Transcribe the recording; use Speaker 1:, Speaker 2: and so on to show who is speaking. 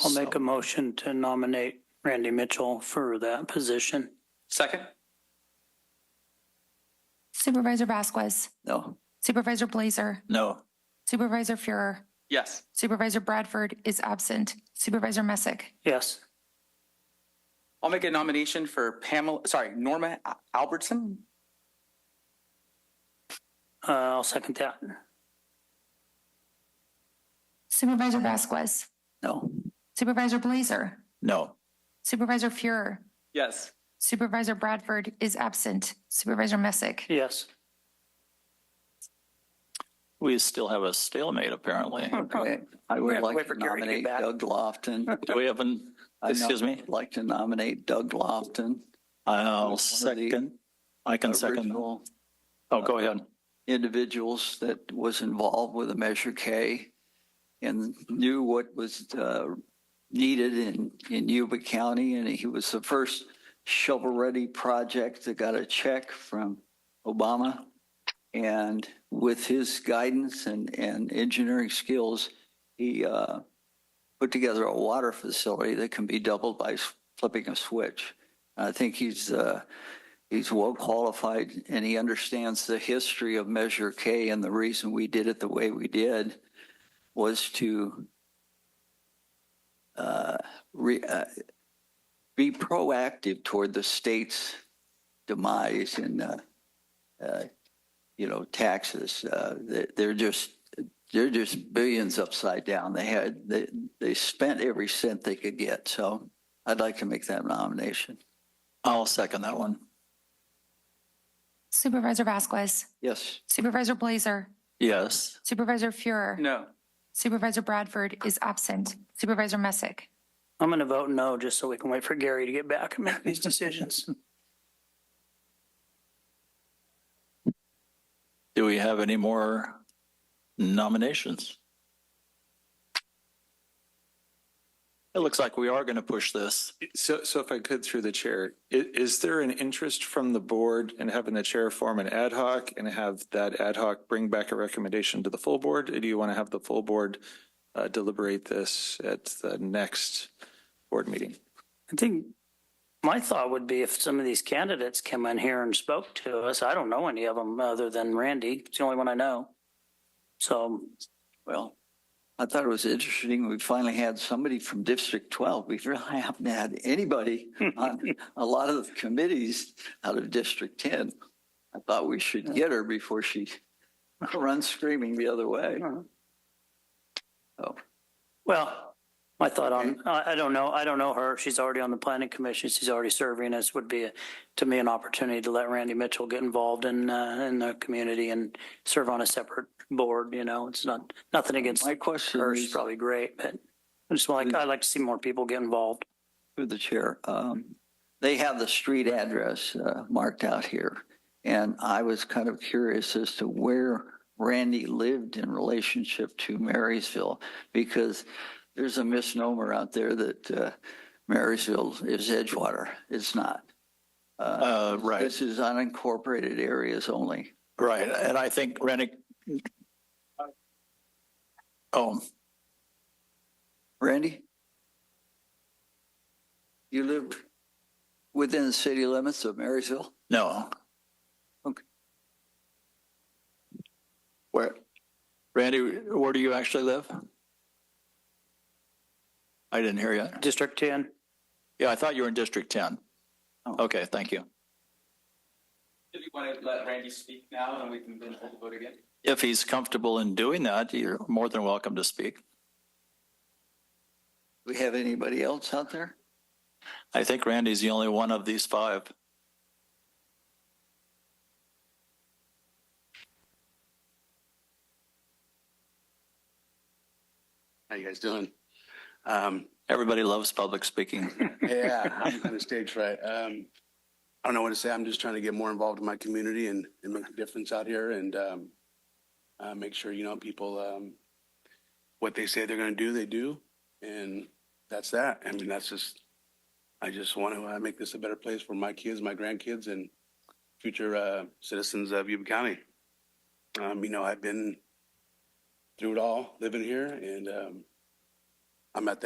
Speaker 1: I'll make a motion to nominate Randy Mitchell for that position.
Speaker 2: Second?
Speaker 3: Supervisor Vasquez,
Speaker 4: No.
Speaker 3: Supervisor Blazer,
Speaker 4: No.
Speaker 3: Supervisor Fuhrer,
Speaker 2: Yes.
Speaker 3: Supervisor Bradford is absent. Supervisor Messick,
Speaker 1: Yes.
Speaker 2: I'll make a nomination for Pamela, sorry, Norma Al- Albertson.
Speaker 1: Uh, I'll second that.
Speaker 3: Supervisor Vasquez,
Speaker 4: No.
Speaker 3: Supervisor Blazer,
Speaker 4: No.
Speaker 3: Supervisor Fuhrer,
Speaker 2: Yes.
Speaker 3: Supervisor Bradford is absent. Supervisor Messick,
Speaker 1: Yes.
Speaker 5: We still have a stalemate, apparently.
Speaker 4: Okay. I
Speaker 1: Oh, We
Speaker 4: would
Speaker 1: have to wait
Speaker 4: like
Speaker 1: for
Speaker 4: to
Speaker 1: Gary to get
Speaker 4: nominate
Speaker 1: back.
Speaker 4: Doug Lofton.
Speaker 5: Do we have an,
Speaker 4: I no-
Speaker 5: Excuse me?
Speaker 4: would Like to nominate Doug Lofton.
Speaker 5: I'll
Speaker 4: Who's one of the
Speaker 5: second, I can second.
Speaker 4: original
Speaker 5: Oh, go ahead.
Speaker 4: Individuals that was involved with the Measure K and knew what was uh, needed in, in Yuba County. And he was the first shovel-ready project that got a check from Obama. And with his guidance and, and engineering skills, he uh, put together a water facility that can be doubled by s- flipping a switch. I think he's, uh, he's well qualified and he understands the history of Measure K and the reason we did it the way we did was to uh, re, uh, be proactive toward the state's demise in, uh, uh, you know, taxes. Uh, they, they're just they're just billions upside down. They had they they spent every cent they could get. So I'd like to make that nomination.
Speaker 5: I'll second that one.
Speaker 3: Supervisor Vasquez,
Speaker 4: Yes.
Speaker 3: Supervisor Blazer,
Speaker 5: Yes,
Speaker 3: Supervisor Fuhrer,
Speaker 2: No.
Speaker 3: Supervisor Bradford is absent. Supervisor Messick,
Speaker 1: I'm going to vote no, just so we can wait for Gary to get back and make these decisions.
Speaker 5: do we have any more nominations? It looks like we are going to push this.
Speaker 6: So, so if I could through the chair, i- is there an interest from the board in having the chair form an ad hoc and have that ad hoc bring back a recommendation to the full board? Or do you want to have the full board uh, deliberate this at the next board meeting?
Speaker 1: I think my thought would be if some of these candidates came in here and spoke to us, I don't know any of them other than Randy. It's the only one I know. So
Speaker 4: Well, I thought it was interesting. We finally had somebody from District 12. We really haven't had anybody on a lot of the committees out of District 10. I thought we should get her before she runs screaming the other way. Oh,
Speaker 1: Well, my thought on, I, I don't know, I don't know her. She's already on the planning commission. She's already serving. This would be, uh, to me, an opportunity to let Randy Mitchell get involved in, uh, in the community and serve on a separate board, you know, it's not, nothing against
Speaker 4: my question
Speaker 1: her. She's
Speaker 4: is
Speaker 1: probably great, but I just like, I like to see more people get involved.
Speaker 4: through the chair. Um, They have the street address uh, marked out here. And I was kind of curious as to where Randy lived in relationship to Marysville, because there's a misnomer out there that uh, Marysville is Edgewater. It's not. Uh,
Speaker 5: Uh, right,
Speaker 4: This is unincorporated areas only.
Speaker 5: right. And I think Rennick. Oh,
Speaker 4: Randy? You live within the city limits of Marysville?
Speaker 5: no.
Speaker 4: Okay.
Speaker 5: Where, Randy, where do you actually live? I didn't hear you.
Speaker 1: District ten,
Speaker 5: Yeah, I thought you were in District 10.
Speaker 4: Oh.
Speaker 5: Okay, thank you.
Speaker 2: Do you want to let Randy speak now and we can then hold the vote again?
Speaker 5: If he's comfortable in doing that, you're more than welcome to speak.
Speaker 4: Do we have anybody else out there?
Speaker 5: I think Randy's the only one of these five.
Speaker 7: How you guys doing? Um,
Speaker 5: Everybody loves public speaking.
Speaker 7: yeah, I'm kind of stage fright. Um, I don't know what to say. I'm just trying to get more involved in my community and, and make a difference out here and, um, uh, make sure, you know, people, um, what they say they're going to do, they do. And that's that. I mean, that's just, I just want to uh, make this a better place for my kids, my grandkids and future, uh, citizens of Yuba County. Um, you know, I've been through it all living here and, um, I'm at that